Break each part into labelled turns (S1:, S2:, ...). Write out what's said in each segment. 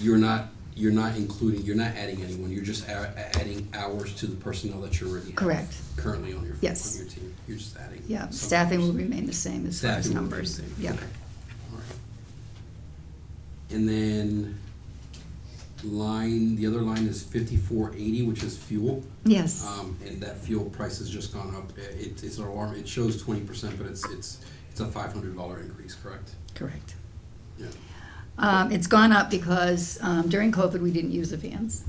S1: you're not, you're not including, you're not adding anyone, you're just a- adding hours to the personnel that you already have.
S2: Correct.
S1: Currently on your,
S2: Yes.
S1: on your team, you're just adding.
S2: Yeah,
S1: some
S2: staffing will
S1: hours.
S2: remain the same as far as
S1: Staffing will be the
S2: numbers.
S1: same.
S2: Yeah.
S1: Okay. All right. And then line, the other line is fifty-four eighty, which is fuel.
S2: Yes.
S1: Um, and that fuel price has just gone up. I- It, it's an alarm, it shows twenty percent, but it's, it's, it's a five hundred dollar increase, correct?
S2: Correct.
S1: Yeah.
S2: Um, it's gone up because, um, during COVID, we didn't use the vans.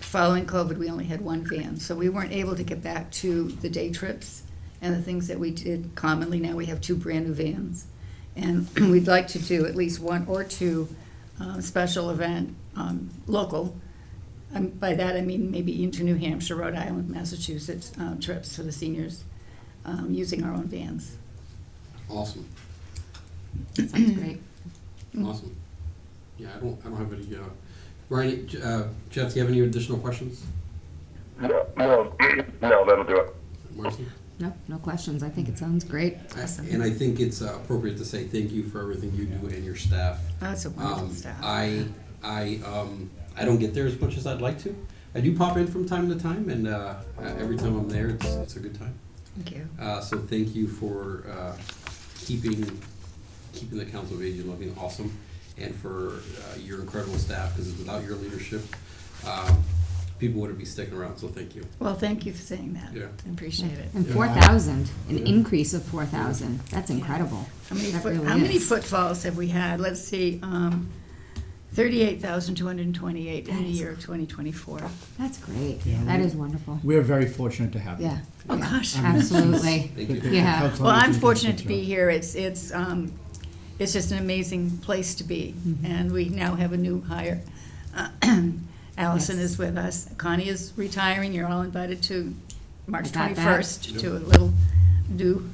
S2: Following COVID, we only had one van, so we weren't able to get back to the day trips and the things that we did commonly. Now we have two brand-new vans. And we'd like to do at least one or two, um, special event, um, local. And by that, I mean maybe into New Hampshire, Rhode Island, Massachusetts, uh, trips for the seniors, um, using our own vans.
S1: Awesome,
S3: Sounds great.
S2: Mm.
S1: awesome. Yeah, I don't, I don't have any, uh, Ryan, uh, Jeff, do you have any additional questions?
S4: No, no, no, that'll do it.
S1: Marcy?
S3: No, no questions. I think it sounds great.
S1: I- And I think it's uh, appropriate to say thank you for everything you do and your staff.
S2: That's a wonderful
S1: Um,
S2: staff.
S1: I, I, um, I don't get there as much as I'd like to. I do pop in from time to time, and uh, uh, every time I'm there, it's, it's a good time.
S2: Thank you.
S1: Uh, so thank you for uh, keeping keeping the Council of Aging looking awesome, and for uh, your incredible staff. Because without your leadership, um, people wouldn't be sticking around. So thank you.
S2: Well, thank you for saying that.
S1: Yeah.
S2: I appreciate it.
S3: And
S1: Yeah.
S3: four thousand, an
S1: Yeah.
S3: increase of four thousand. That's
S2: Yeah.
S3: incredible.
S2: How many,
S3: That
S2: foot-
S3: really
S2: how many
S3: is.
S2: footfalls have we had? Let's see, um, thirty-eight thousand two hundred and twenty-eight in
S3: That
S2: the
S3: is-
S2: year of twenty twenty-four.
S3: That's great.
S5: Yeah,
S3: That
S5: we- Um,
S3: is wonderful.
S5: We're very fortunate to have you.
S3: Yeah.
S2: Oh,
S3: yeah,
S2: gosh.
S3: Absolutely.
S1: Thank
S5: But
S1: you.
S5: the
S3: Yeah.
S5: Council on
S2: Well, I'm
S5: Aging
S2: fortunate
S5: does
S2: to
S5: a
S2: be
S5: good job.
S2: here. It's, it's, um, it's just an amazing place to be.
S3: Mm-hmm.
S2: And we now have a new hire. Allison
S3: Yes.
S2: is with us. Connie is retiring. You're all invited to March
S3: I got that.
S2: twenty-first
S1: Yep.
S2: to a little do.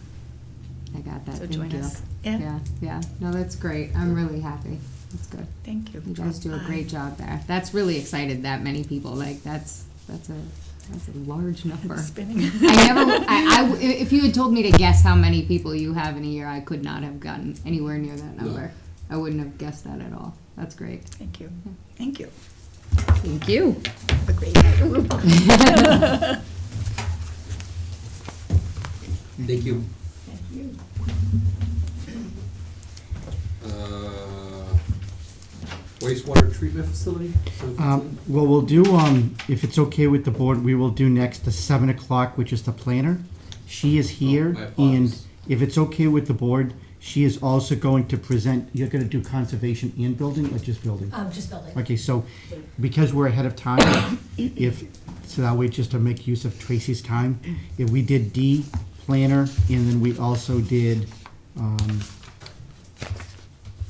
S3: I got that.
S2: So
S3: Thank
S2: join
S3: you.
S2: us. Yeah.
S3: Yeah, yeah. No, that's great. I'm really happy. That's good.
S2: Thank you.
S3: You guys do a great job there. That's really excited that many people. Like that's that's a that's a large number.
S2: I'm spinning.
S3: I never. I, I w- if you had told me to guess how many people you have in a year, I could not have gotten anywhere near that
S1: No.
S3: number. I wouldn't have guessed that at all. That's great.
S2: Thank you. Thank you.
S3: Thank you.
S2: Have a great night.
S1: Thank you.
S2: Thank you.
S1: Uh, wastewater treatment facility.
S5: Um, well, we'll do, um, if it's okay with the board, we will do next the seven o'clock, which is the planner. She is
S1: Oh, I
S5: here, and
S1: apologize.
S5: if it's okay with the board, she is also going to present, you're gonna do conservation and building, or just building?
S6: Um, just building.
S5: Okay, so because we're ahead of time, if, so that way, just to make use of Tracy's time, if we did D, planner, and then we also did, um,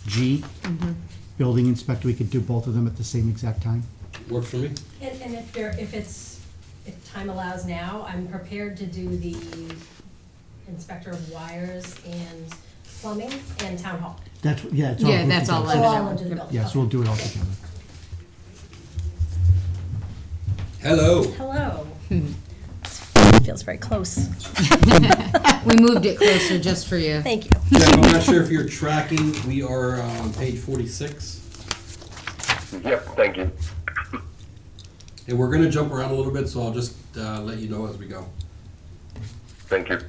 S5: G,
S6: Mm-hmm.
S5: building inspector, we could do both of them at the same exact time.
S1: Works for me.
S6: And, and if there, if it's, if time allows now, I'm prepared to do the inspector of wires and plumbing and town hall.
S5: That's, yeah, it's all.
S3: Yeah,
S5: grouped
S3: that's all.
S5: together.
S6: Oh,
S3: under
S6: all
S3: that.
S6: under the bill.
S5: Yeah, so we'll do it all together.
S1: Hello.
S6: Hello.
S5: Hmm.
S6: Feels very close.
S3: We moved it closer just for you.
S6: Thank you.
S1: Jeff, I'm not sure if you're tracking. We are uh, on page 46.
S4: Yep, thank you.
S1: And we're going to jump around a little bit, so I'll just uh, let you know as we go.
S4: Thank you.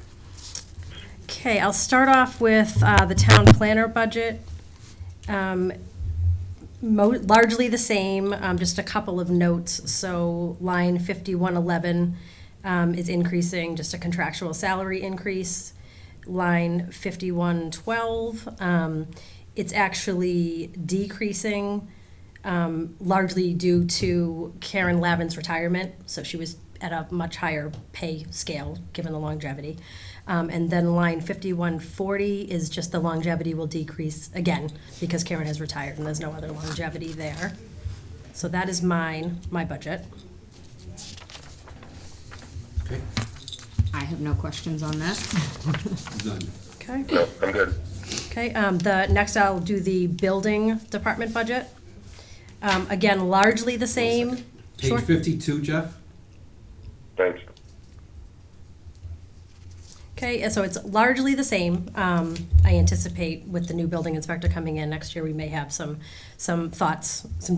S6: Okay, I'll start off with uh, the town planner budget. Um, mo- Largely the same, um, just a couple of notes. So line 5111 um, is increasing, just a contractual salary increase. Line 5112, um, it's actually decreasing um, largely due to Karen Lavin's retirement. So she was at a much higher pay scale, given the longevity. Um, and then line 5140 is just the longevity will decrease again because Karen has retired and there's no other longevity there. So that is mine, my budget.
S1: Okay?
S3: I have no questions on that.
S1: Done.
S6: Okay.
S4: No, I'm good.
S6: Okay, um, the, next I'll do the building department budget. Um, again, largely the same.
S1: Page
S6: Sure.
S1: 52, Jeff?
S4: Thanks.
S6: Okay, and so it's largely the same. Um, I anticipate with the new building inspector coming in next year, we may have some, some thoughts, some